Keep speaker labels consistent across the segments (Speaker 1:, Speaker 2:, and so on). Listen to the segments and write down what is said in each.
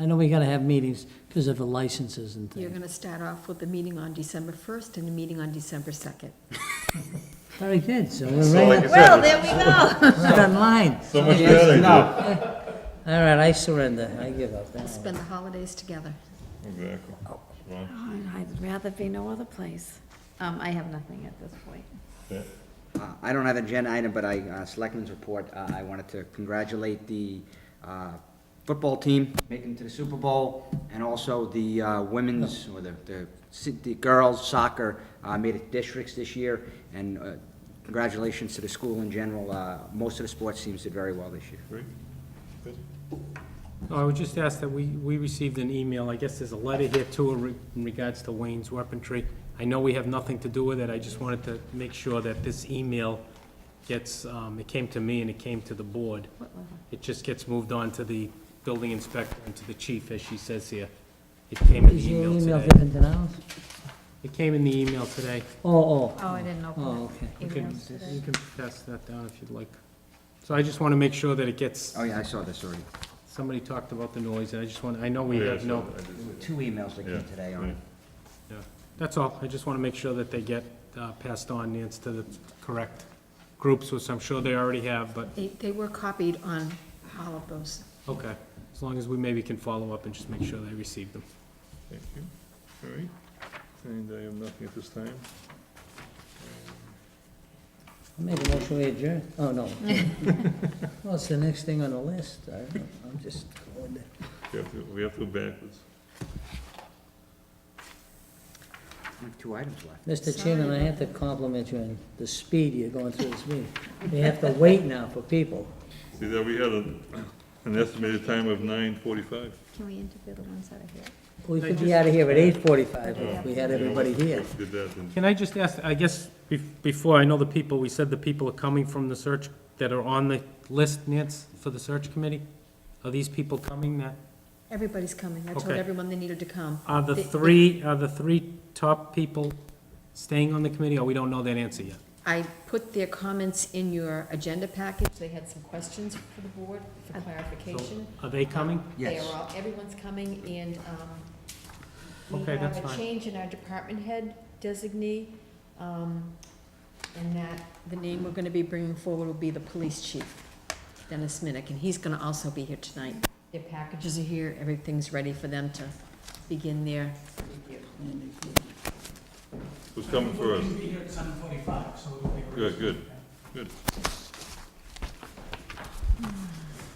Speaker 1: I know we gotta have meetings because of the licenses and
Speaker 2: You're
Speaker 1: things.
Speaker 2: gonna start off with the meeting on December first and the meeting on December second.
Speaker 1: Very good, so we're
Speaker 3: So like
Speaker 1: right
Speaker 3: I
Speaker 2: Well,
Speaker 3: said,
Speaker 2: there we go.
Speaker 1: right on line.
Speaker 3: so much better. dude.
Speaker 1: All right, I surrender, I give up.
Speaker 2: Spend the holidays together.
Speaker 3: Exactly. Well,
Speaker 4: I'd rather be no other place. Um, I have nothing at this point.
Speaker 3: yeah.
Speaker 5: Uh, I don't have an agenda item, but I, uh, Selectmen's report, uh, I wanted to congratulate the uh, football team making it to the Super Bowl, and also the uh, women's, or the, the si- the girls soccer uh, made it districts this year, and uh, congratulations to the school in general. Uh, Most of the sports teams did very well this year.
Speaker 3: Great. Good.
Speaker 6: I would just ask that we, we received an email, I guess there's a letter here too re- in regards to Wayne's Weaponry. I know we have nothing to do with it, I just wanted to make sure that this email gets, um, it came to me and it came to the board. It just gets moved on to the building inspector and to the chief, as she says here. It came in
Speaker 1: Is
Speaker 6: the
Speaker 1: your
Speaker 6: email
Speaker 1: email
Speaker 6: today.
Speaker 1: different than ours?
Speaker 6: It came in the email today.
Speaker 1: Oh, oh,
Speaker 4: Oh, I didn't open
Speaker 1: oh,
Speaker 4: it.
Speaker 1: okay.
Speaker 6: You can,
Speaker 4: Emails today.
Speaker 6: you can pass that down if you'd like. So I just want to make sure that it gets,
Speaker 5: Oh, yeah, I saw this already.
Speaker 6: somebody talked about the noise, and I just want, I know we
Speaker 3: Oh, Yeah,
Speaker 6: have
Speaker 3: so
Speaker 6: no,
Speaker 3: I just-
Speaker 5: Two emails that
Speaker 3: yeah,
Speaker 5: came today on
Speaker 3: yeah.
Speaker 5: it.
Speaker 6: Yeah, that's all. I just want to make sure that they get uh, passed on, Nance, to the correct groups, which I'm sure they already have, but,
Speaker 2: They, they were copied on all of those.
Speaker 6: okay. As long as we maybe can follow up and just make sure they receive them.
Speaker 3: Thank you. All right. And I have nothing at this time.
Speaker 1: I Make a motion we adjourn. Oh, no. Well, it's the next thing on the list. I don't know. I'm just going to.
Speaker 3: We have to, we have to go backwards.
Speaker 5: We have Two items left.
Speaker 1: Mr. Chairman, I have to compliment you on the speed you're going through this meeting. We have to wait now for people.
Speaker 3: See, that we had a- an estimated time of nine forty-five.
Speaker 4: Can we interview the ones that are here?
Speaker 1: We could be out of here at eight forty-five if we had everybody here.
Speaker 3: Did that, and
Speaker 6: Can I just ask, I guess, bef- before, I know the people, we said the people are coming from the search, that are on the list, Nance, for the search committee? Are these people coming that,
Speaker 2: Everybody's coming. I told
Speaker 6: Okay.
Speaker 2: everyone they needed to come.
Speaker 6: are the
Speaker 2: They- they-
Speaker 6: three, are the three top people staying on the committee, or we don't know that answer yet?
Speaker 2: I put their comments in your agenda package. They had some questions for the board for clarification.
Speaker 6: Are they coming?
Speaker 5: Yes.
Speaker 2: They are all, everyone's coming, and um,
Speaker 6: Okay,
Speaker 2: we have
Speaker 6: that's
Speaker 2: a
Speaker 6: fine.
Speaker 2: change in our department head designee, um, and that the name we're gonna be bringing forward will be the police chief, Dennis Minnick, and he's gonna also be here tonight. Their packages are here, everything's ready for them to begin their review.
Speaker 3: who's coming first? Good, good, good.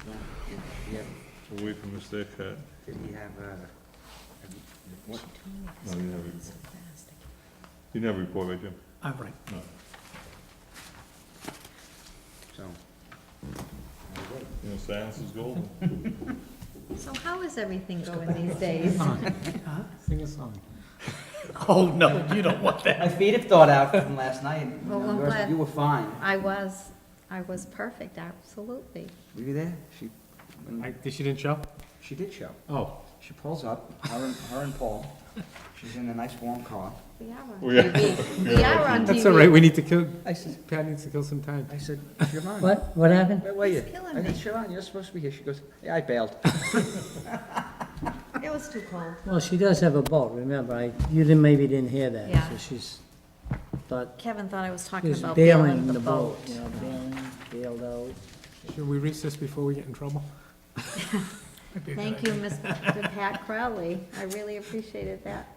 Speaker 5: We have,
Speaker 3: We'll wait for Mr. Eckhart.
Speaker 5: did we have, uh, what-
Speaker 3: No, you never,
Speaker 2: So fast.
Speaker 3: you never report, right, Jim?
Speaker 6: All right.
Speaker 3: No.
Speaker 5: so,
Speaker 3: You know, silence is golden.
Speaker 4: So how is everything going these days?
Speaker 6: Sing a song.
Speaker 1: Uh-huh. Oh, no, you don't want that.
Speaker 5: my feet have thawed out from last night. You
Speaker 4: Well,
Speaker 5: know,
Speaker 4: I'm
Speaker 5: yours-
Speaker 4: glad-
Speaker 5: You were fine.
Speaker 4: I was, I was perfect, absolutely.
Speaker 5: Were you there? She, when-
Speaker 6: I, she didn't show?
Speaker 5: she did show.
Speaker 6: Oh,
Speaker 5: She pulls up, her and, her and Paul. She's in a nice warm car.
Speaker 4: We are on
Speaker 3: We are-
Speaker 4: TV. We are on TV.
Speaker 6: that's all right, we need to kill,
Speaker 5: I said,
Speaker 6: Pat needs to kill some time.
Speaker 5: I said, Siobhan.
Speaker 1: What, what happened?
Speaker 5: Where were you?
Speaker 4: It's killing
Speaker 5: I
Speaker 4: me.
Speaker 5: said, Siobhan, you're supposed to be here. She goes, yeah, I bailed.
Speaker 4: It was too cold.
Speaker 1: Well, she does have a boat, remember, I, you didn't, maybe didn't hear that,
Speaker 4: Yeah.
Speaker 1: so she's, thought,
Speaker 4: Kevin thought I was
Speaker 1: she
Speaker 4: talking
Speaker 1: was
Speaker 4: about
Speaker 1: bailing
Speaker 4: bailing
Speaker 1: the boat, you know, bailing, bailed out.
Speaker 6: Should we recess before we get in trouble?
Speaker 4: Thank you, Mr. Pat Crowley. I really appreciated that.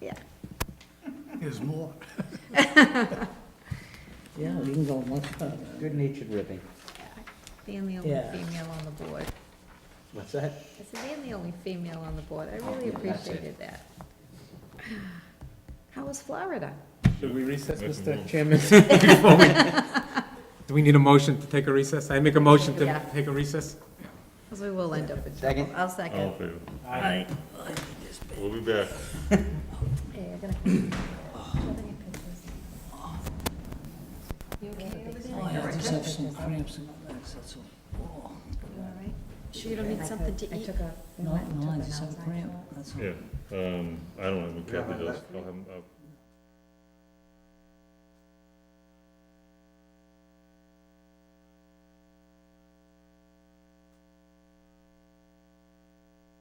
Speaker 4: Yeah.
Speaker 1: Yeah, we can go much further.
Speaker 5: Good-natured ribbing.
Speaker 4: Being the only
Speaker 1: Yeah.
Speaker 4: female on the board.
Speaker 5: What's that?
Speaker 4: I said, being the only female on the board, I really
Speaker 5: yeah, that's it.
Speaker 4: appreciated that. How was Florida?
Speaker 6: Should we recess,
Speaker 3: Make a
Speaker 6: Mr.
Speaker 3: move.
Speaker 6: Chairman? before we- Do we need a motion to take a recess? I make a motion
Speaker 4: Yeah.
Speaker 6: to take a recess?
Speaker 4: Because we will end up in trouble.
Speaker 5: Second.
Speaker 4: I'll
Speaker 3: All in
Speaker 4: second.
Speaker 3: favor? We'll be back.
Speaker 4: Hey, you're gonna- Do you
Speaker 5: Oh.
Speaker 4: have any pictures?
Speaker 2: You okay over there?
Speaker 1: I just have some cramps in my legs, that's all.
Speaker 4: You all right?
Speaker 2: Sure you don't need something to
Speaker 4: I
Speaker 2: eat?
Speaker 4: took a.
Speaker 1: No, no, I just have a cramp, that's all.
Speaker 3: Yeah, um, I don't have, a Kathy does, I'll have, I'll